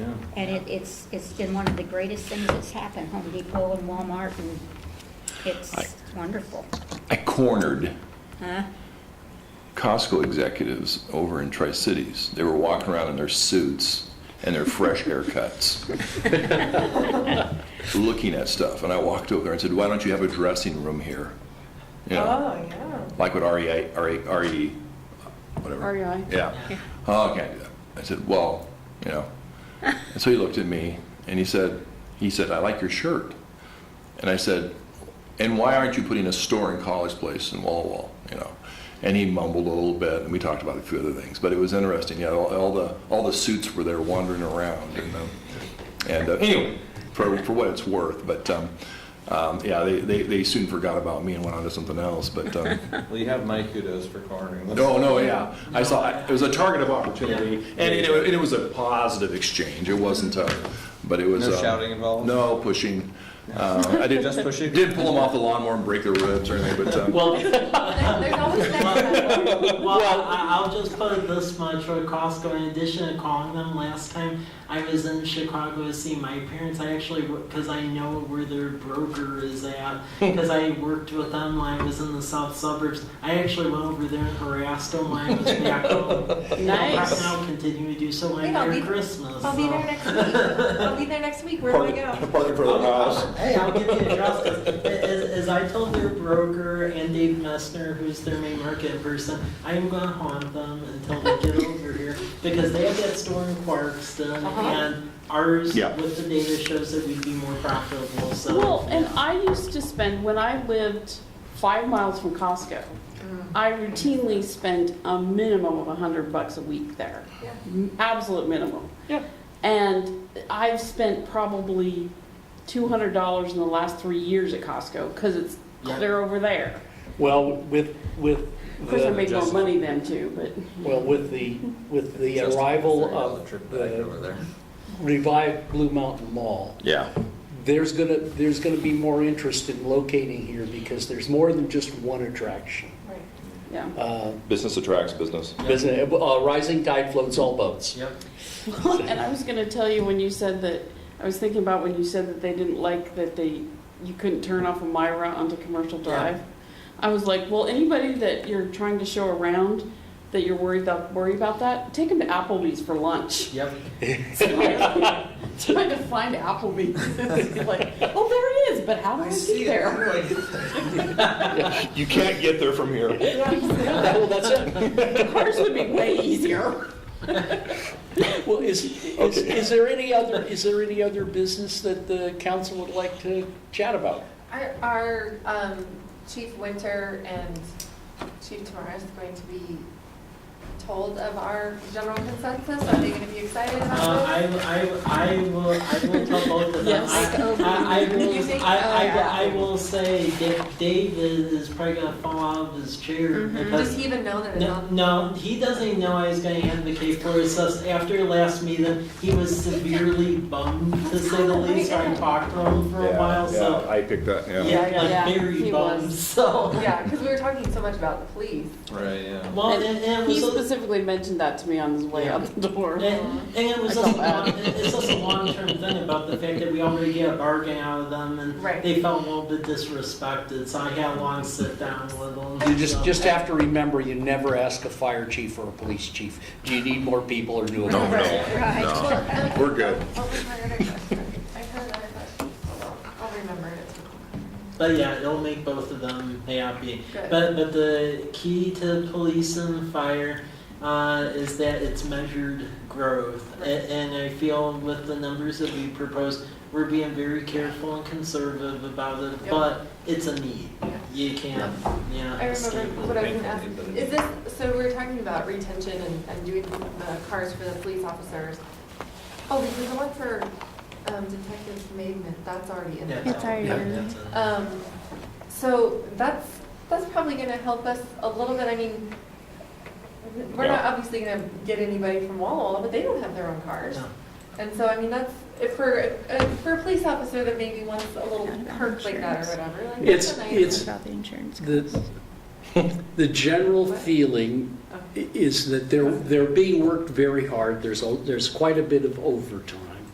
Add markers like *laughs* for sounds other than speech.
And it, it's, it's been one of the greatest things that's happened, Home Depot and Walmart, and I- it's wonderful. I cornered Huh? Costco executives over in Tri-Cities. They were walking around in their suits and their fresh haircuts, looking at stuff. And I walked over there and said, why don't you have a dressing room here? You know, Oh, yeah. like what E REI, RE, RE, whatever. REI. Yeah. Oh, I can't do that. I said, well, you know. And so he looked at me and he said, he said, I like your shirt. And I said, and why aren't you putting a store in College Place in Walla Walla, you know? And he mumbled a little bit, and we talked about a few other things, but it was interesting. Yeah, all, all the all the suits were there wandering around, and um, and uh, anyway, for for what it's worth, but. Um, um, yeah, they, they, they soon forgot about me and went on to something else. But um, *laughs* Well, you have my kudos for cornering this. no, no, yeah, I saw it was a target of opportunity, and it, and it was a positive exchange. It wasn't a, but it was No um, shouting involved? No *laughs* pushing. Uh, I did Just pushing? Did pull them off the lawnmower and break their ribs or anything, but um, Well, There's always that. well, I, I'll just put it this much for Costco. In addition to calling them last time, I was in Chicago to see my parents. I actually, because I know where their broker is at, because I worked with them when I was in the south suburbs. I actually went over there and harassed them when I was *laughs* back home. Nice. I'll continue to do so when Wait, I'll near be- Christmas. I'll be there so. next week. I'll be there next week. Where do I go? parking *laughs* for their house. Hey, I'll give you a draft, 'cause a- as, as I told their broker and Dave Messner, who's their main market person, I am gonna haunt them until they get over here, because they have that store in Clarkston, Uh-huh. and ours, Yeah. with the data, shows that we'd be more profitable, so. Well, and I used to spend, when I lived five miles from Costco, I routinely spent a minimum of a hundred bucks a week there. Yeah. M- Absolute minimum. Yeah. And I've spent probably two hundred dollars in the last three years at Costco, cause it's, Yeah. they're over there. Well, with, with Of course, I the, make more money then too, but, well, with the, with the Just arrival figured out the of trip back over the there. revived Blue Mountain Mall, Yeah, there's gonna, there's gonna be more interest in locating here because there's more than just one attraction. Right. yeah. Uh, business attracts business. business- uh, Rising tide floats all boats. Yep. *laughs* And I was gonna tell you when you said that, I was thinking about when you said that they didn't like that they, you couldn't turn off a Myra onto Commercial Drive. I was like, well, anybody that you're trying to show around, that you're worried about, worry about that, take them to Applebee's for lunch. *laughs* Yep. Trying to find Applebee's, *laughs* It's like, oh, there it is, but how do I get there? You can't get there from here. *laughs* Well, *laughs* that's it. Cars would be way easier. Well, is, is, is there any other, is there any other business that the council would like to chat about? Our, our um, Chief Winter and Chief Tamara is going to be told of our general consensus. Are they going to be excited Uh, about I, this? I, I will, I will tell both of them. Yes. I- I, I Oh, You will, think- I, oh, yeah. I, I will say that Dave is is probably gonna fall out of his chair Mm-hmm. because Does he even know that it's No, on? no, he doesn't even know I was going to advocate for his sus. After your last meeting, he was severely bummed, to say the least. So I talked to him for a while, so. I picked that, Yeah, Yeah, like very he bummed, was. so. Yeah, because we were talking so much about the *laughs* police. Right, yeah. Well, and, and it He was, a- specifically mentioned that to me on his way out the door. and, and it was I just, felt bad. a- it's just a long-term thing about the fact that we already get a bargain out of them and Right. they felt a little bit disrespected, so I had a long sit-down with them. You just, so. just have to remember, you never ask a fire chief or a police chief, do you need more people or do it? No, no, Right. no. Well, um, We're good. What was my other question? I heard another question. Hold on. I'll remember it. But yeah, it'll make both of them happy. Good. But but the key to police and fire uh, is that it's measured growth, A- and I feel with the numbers that we propose, we're being very careful and conservative about it. Yep. But it's a need. You can't. Yeah. I remember escape it. what I was gonna ask. Is this, so we were talking about retention and, and doing the cars for the police officers. Oh, because the one for, um, Detective Maidment, that's already in there. Yeah, It's already yeah, in there. that's it. Um, so that's, that's probably gonna help us a little bit, I mean, we're not obviously gonna get anybody from Walla Walla, but they don't have their own cars. No. And so, I mean, that's, if for, uh, for a police officer that maybe wants a little perk like that or whatever, like, that's It's, a nice. it's, About the insurance. the, the general feeling i- is that they're, they're being worked very hard, there's, a- there's quite a bit of overtime.